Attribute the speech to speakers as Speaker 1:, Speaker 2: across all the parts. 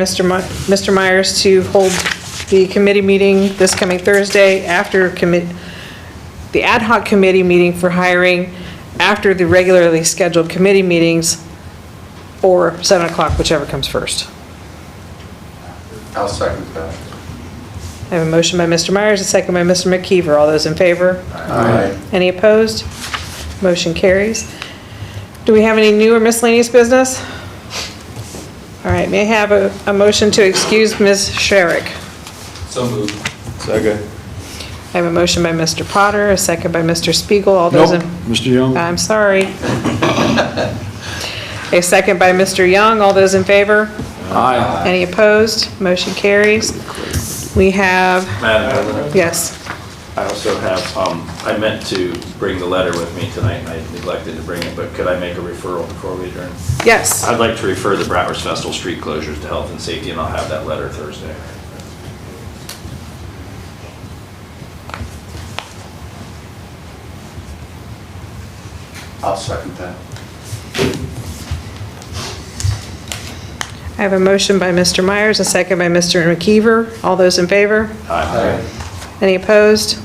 Speaker 1: Mr. My- Mr. Myers to hold the committee meeting this coming Thursday after commit, the ad hoc committee meeting for hiring after the regularly scheduled committee meetings, or 7 o'clock, whichever comes first.
Speaker 2: I'll second that.
Speaker 1: I have a motion by Mr. Myers, a second by Mr. McKeever. All those in favor?
Speaker 2: Aye.
Speaker 1: Any opposed? Motion carries. Do we have any new or miscellaneous business? All right, may I have a, a motion to excuse Ms. Sherrick?
Speaker 2: So moved.
Speaker 3: Second.
Speaker 1: I have a motion by Mr. Potter, a second by Mr. Spiegel. All those
Speaker 3: Nope,
Speaker 1: in...
Speaker 3: Mr. Young?
Speaker 1: I'm sorry. A second by Mr. Young. All those in favor?
Speaker 3: Aye.
Speaker 1: Any opposed? Motion carries. We have,
Speaker 4: Madam President,
Speaker 1: yes.
Speaker 4: I also have, um, I meant to bring the letter with me tonight, and I neglected to bring it, but could I make a referral before we adjourn?
Speaker 1: Yes.
Speaker 4: I'd like to refer the Bratwurst Festival street closures to health and safety, and I'll have that letter Thursday.
Speaker 2: I'll second that.
Speaker 1: I have a motion by Mr. Myers, a second by Mr. McKeever. All those in favor?
Speaker 4: Aye.
Speaker 1: Any opposed?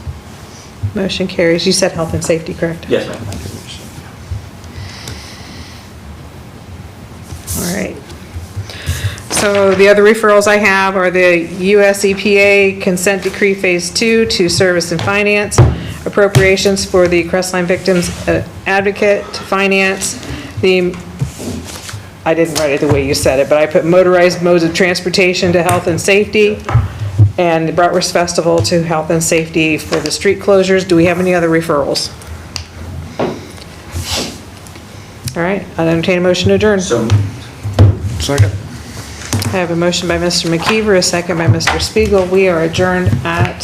Speaker 1: Motion carries. You said health and safety, correct?
Speaker 4: Yes, ma'am.
Speaker 1: All right. So the other referrals I have are the US EPA Consent Decree Phase 2 to Service and Finance, appropriations for the Crestline Victims uh, Advocate to Finance, the, I didn't write it the way you said it, but I put motorized modes of transportation to health and safety, and the Bratwurst Festival to health and safety for the street closures. Do we have any other referrals? All right, I'll entertain a motion to adjourn.
Speaker 2: So
Speaker 3: Second.
Speaker 1: I have a motion by Mr. McKeever, a second by Mr. Spiegel. We are adjourned at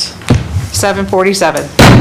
Speaker 1: 7:47.